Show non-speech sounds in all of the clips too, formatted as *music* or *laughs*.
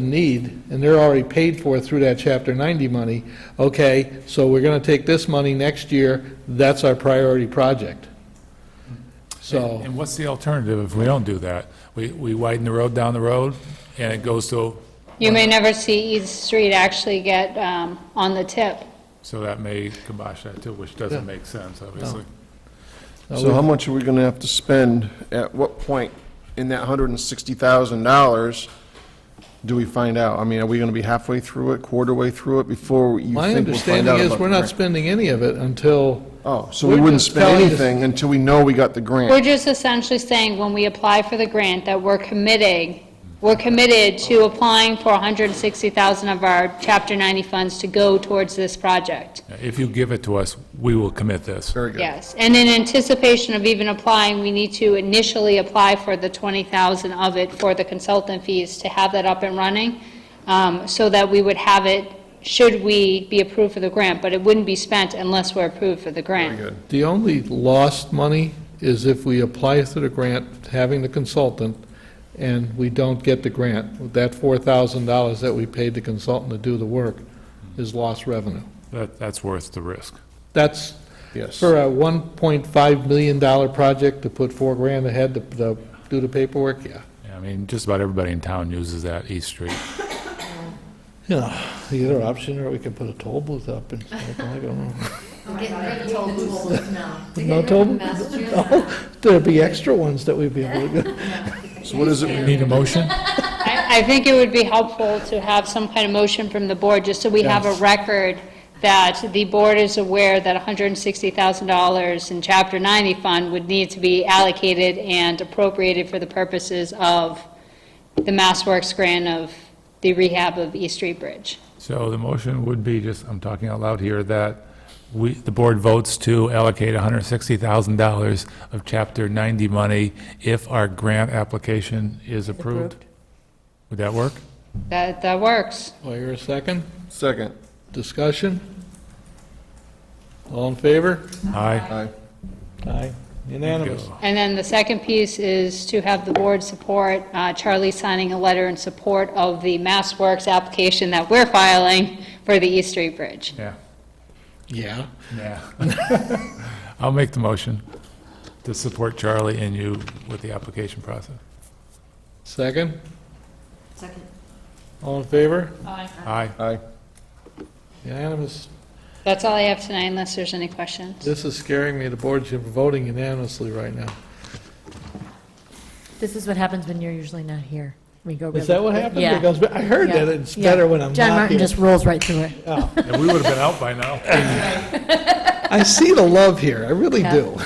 the need, and they're already paid for through that Chapter 90 money, okay, so we're going to take this money next year, that's our priority project. So, And what's the alternative if we don't do that? We, we widen the road down the road, and it goes to, You may never see East Street actually get um, on the tip. so that may kibosh that too, which doesn't make sense, obviously. So how much are we gonna have to spend? At what point in that hundred and sixty thousand dollars do we find out? I mean, are we gonna be halfway through it, quarter way through it, before you my think we'll find out understanding is, about we're the not grant? spending any of it until, Oh, so we we're wouldn't just spend telling you- anything until we know we got the We're grant? just essentially saying, when we apply for the grant, that we're committing, we're committed to applying for 160,000 of our Chapter 90 funds to go towards this project. If you give it to us, we will commit this. Very good. Yes, and in anticipation of even applying, we need to initially apply for the 20,000 of it for the consultant fees to have that up and running, um, so that we would have it, should we be approved for the grant, but it wouldn't be spent unless we're approved for the grant. Very good. the only lost money is if we apply to the grant, having the consultant, and we don't get the grant. That $4,000 that we paid the consultant to do the work is lost revenue. That, that's worth the risk. That's, Yes. For a $1.5 million project to put four grand ahead to- to do the paperwork, yeah. Yeah, I mean, just about everybody in town uses that East Street. You know, the other option, or we could put a toll booth up and, stuff, I don't know. Getting rid of toll booths now. No toll booth? No, There'd be extra ones that we'd be able *laughs* to, go. So what is it? Need a motion? *laughs* I I think it would be helpful to have some kind of motion from the board, just so we have a Yes. record that the board is aware that $160,000 in Chapter 90 fund would need to be allocated and appropriated for the purposes of the Mass Works grant of the rehab of East Street Bridge. So the motion would be, just, I'm talking out loud here, that we, the board votes to allocate $160,000 of Chapter 90 money if our grant application is approved. Would that work? That, that works. Well, you're a second? Second. Discussion? All in favor? Aye. Aye. Aye. Unanimous. Go. And then the second piece is to have the board support, uh, Charlie signing a letter in support of the Mass Works application that we're filing for the East Street Bridge. Yeah. Yeah. Yeah. *laughs* I'll make the motion to support Charlie and you with the application process. Second? Second. All in favor? Aye. Aye. Unanimous. That's all I have tonight, unless there's any questions. This is scaring me, the board's voting unanimously right now. This is what happens when you're usually not here. We go really Is that what quick. happened? Yeah. It goes- I heard Yeah. that it's Yeah. better when I'm not here. John Martin just rolls right through it. Yeah, we would have been out by *laughs* now. I see the love here, I really Yeah. do.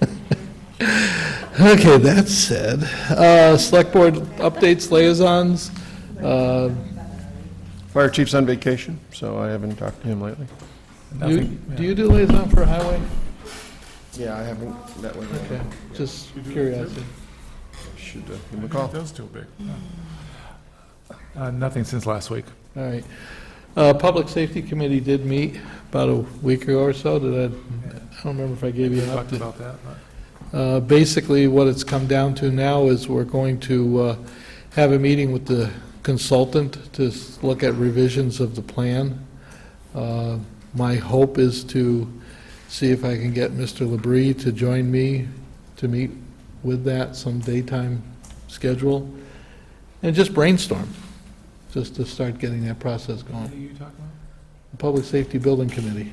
*laughs* Okay, that said, uh, Select Board updates, liaisons, uh, Fire chief's on vacation, so I haven't talked to him lately. you- Nothing. do you do liaison for highway? Yeah, I haven't, that way, Okay, just curiosity. should uh, give him a call. That's too big. Uh, Nothing since last week. All right. Uh, Public Safety Committee did meet about a week ago or so, did I, I don't remember if I gave you We an talked update. about that. but- Uh, Basically, what it's come down to now is we're going to uh, have a meeting with the consultant to s- look at revisions of the plan. Uh, My hope is to see if I can get Mr. Labrie to join me to meet with that some daytime schedule, and just brainstorm, just to start getting that process What are going. you talking about? Public Safety Building Committee,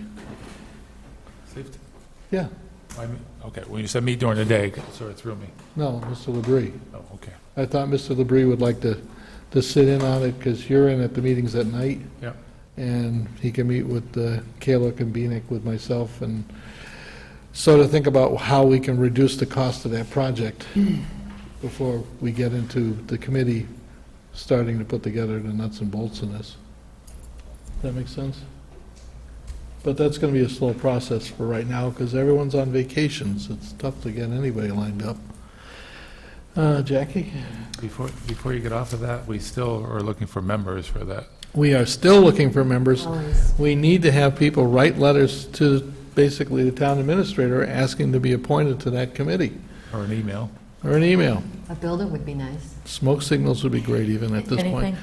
Safety? yeah, I mean, Okay, when you said meet during the day, it sort of threw me. no, Mr. Labrie. Oh, okay. I thought Mr. Labrie would like to, to sit in on it, because you're in at the meetings at night. Yep. And he can meet with uh, Kayla Kombinick, with myself, and sort of think about how we can reduce the cost of that project before we get into the committee starting to put together the nuts and bolts in this. Does that make sense? But that's going to be a slow process for right now, because everyone's on vacations. It's tough to get anybody lined up. Uh, Jackie? Before, before you get off of that, we still are looking for members for that. We are still looking for members. Always. We need to have people write letters to basically the town administrator asking to be appointed to that committee, Or an email. or an email. A building would be nice. Smoke signals would be great even at this point. Anything?